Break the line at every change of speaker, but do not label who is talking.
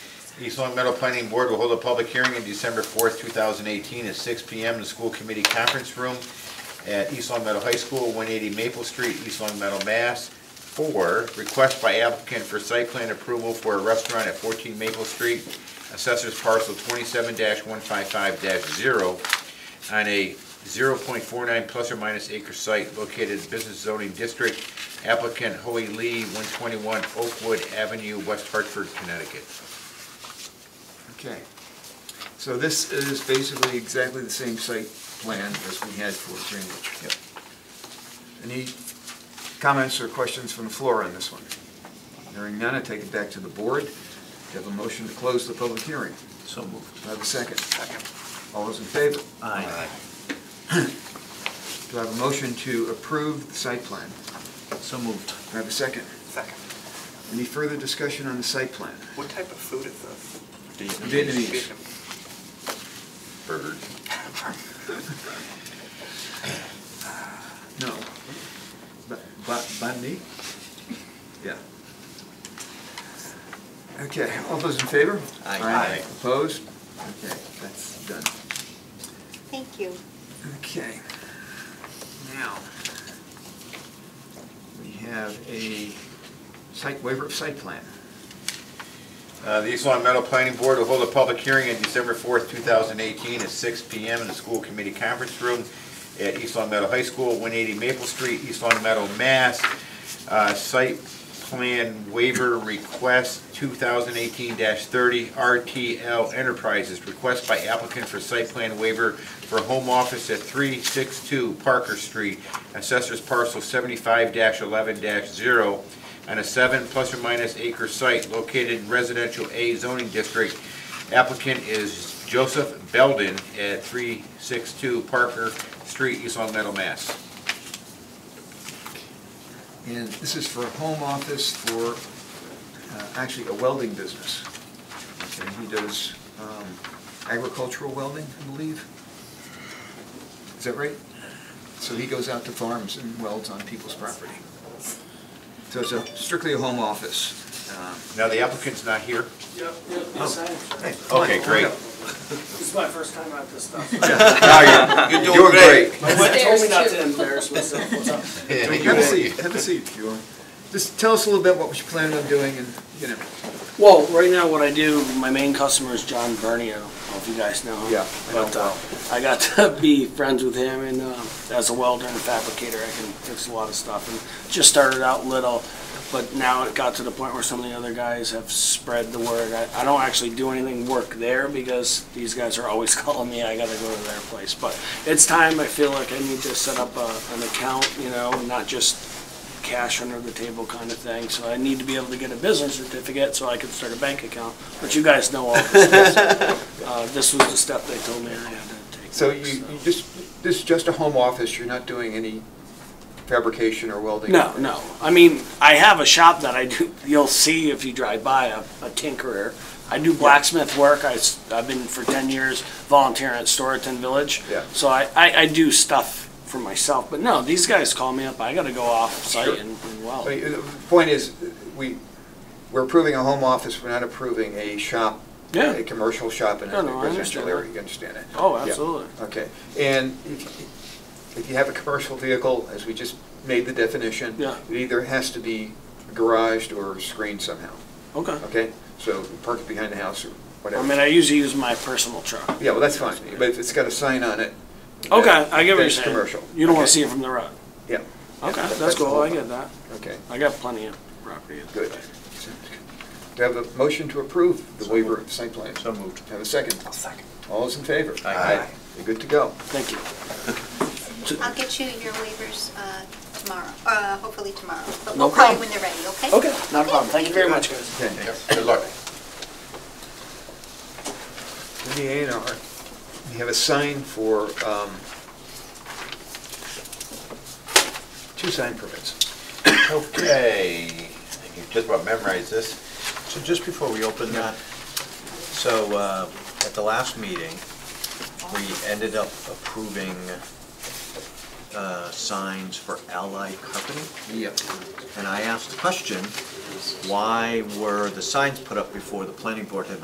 East Long Meadow Planning Board will hold a public hearing on December 4th, 2018, at 6 PM in the School Committee Conference Room at East Long Meadow High School, 180 Maple Street, East Long Meadow, Mass. Four, request by applicant for site plan approval for a restaurant at 14 Maple Street, Assessors Parcel 27-155-0, on a 0.49 plus or minus acre site located in Business Zoning District, applicant Hoey Lee, 121 Oakwood Avenue, West Hartford, Connecticut.
Okay. So this is basically exactly the same site plan as we had for Greenwich.
Yep.
Any comments or questions from the floor on this one? Hearing none, I take it back to the board. Do you have a motion to close the public hearing?
So moved.
Do I have a second? Second. All those in favor?
Aye.
Do I have a motion to approve the site plan?
So moved.
Do I have a second?
Second.
Any further discussion on the site plan?
What type of food is this?
Vietnamese.
Bird.
No. Ba- ba- Banh mi? Yeah. Okay, all those in favor?
Aye.
Aye.
Opposed? Okay, that's done.
Thank you.
Okay. Now, we have a site waiver of site plan.
Uh, The East Long Meadow Planning Board will hold a public hearing on December 4th, 2018, at 6 PM in the School Committee Conference Room at East Long Meadow High School, 180 Maple Street, East Long Meadow, Mass. Uh, Site Plan Waiver Request 2018-30 RTL Enterprises, request by applicant for site plan waiver for home office at 362 Parker Street, Assessors Parcel 75-11-0, on a seven plus or minus acre site located in residential A zoning district. Applicant is Joseph Belden at 362 Parker Street, East Long Meadow, Mass.
And this is for a home office for, uh, actually, a welding business. Okay, he does um, agricultural welding, I believe. Is that right? So he goes out to farms and welds on people's property. So it's a- strictly a home office. Um,
Now, the applicant's not here.
Yep, yep, yes, I am.
hey, come on,
Okay,
hold
great.
up.
This is my first time at this stuff.
Now You're you're doing great.
My wife told me not to embarrass myself. What's up?
Have a seat, have a seat if you want. Just tell us a little bit what you're planning on doing and, you know.
Well, right now, what I do, my main customer is John Bernie. I don't know if you guys know him.
Yeah, I know
But uh, I got to be friends with him, and uh, as a welder and fabricator, I can fix a lot of stuff. And just started out little, but now it got to the point where some of the other guys have spread the word. I, I don't actually do anything work there because these guys are always calling me. I got to go to their place, but it's time. I feel like I need to set up a, an account, you know, and not just cash under the table kind of thing. So I need to be able to get a business certificate so I can start a bank account. But you guys know all this. uh, this was the step they told me I had to take.
So you, you just, this is just a home office, you're not doing any fabrication or welding?
No, no. I mean, I have a shop that I do. You'll see if you drive by a, a tinkerer. I do blacksmith work. I, have been for 10 years volunteering at Storyton Village.
Yeah.
So I, I, I do stuff for myself. But no, these guys call me up. I got to go off site
Sure.
and, and weld.
I mean, The point is, we, we're approving a home office, we're not approving a shop,
Yeah.
a commercial shop in
No,
a
no, I
residential
understand
area,
that.
you understand that?
Oh,
Yeah.
absolutely.
Okay, and if if you have a commercial vehicle, as we just made the definition,
Yeah.
it either has to be garaged or screened somehow,
Okay.
okay? So park it behind the house or
I
whatever.
mean, I usually use my personal truck.
Yeah, well, that's fine, but if it's got a sign on it.
Okay,
that-
I
that
get what you're
it's
saying.
commercial.
You don't want
Okay.
to see it from the road.
Yeah.
Okay,
Yeah,
that's
the
cool.
whole
I
thing.
get that.
Okay,
I got plenty of property.
good. Do I have a motion to approve the waiver of site plan?
So moved.
Have a second?
I'll second.
All those in favor?
Aye.
You're good to go.
Thank you.
I'll get you your waivers uh, tomorrow, uh, hopefully tomorrow. But
No
we'll call you
problem.
when they're ready, okay?
Okay, not a problem. Thank you very much, guys.
Okay.
Good luck.
In the A and R, we have a sign for, um, two sign permits.
Okay, you just about memorized this.
So just before we open
Yeah.
that, so uh, at the last meeting, we ended up approving uh, signs for Allied Company.
Yep.
And I asked the question, why were the signs put up before the planning board had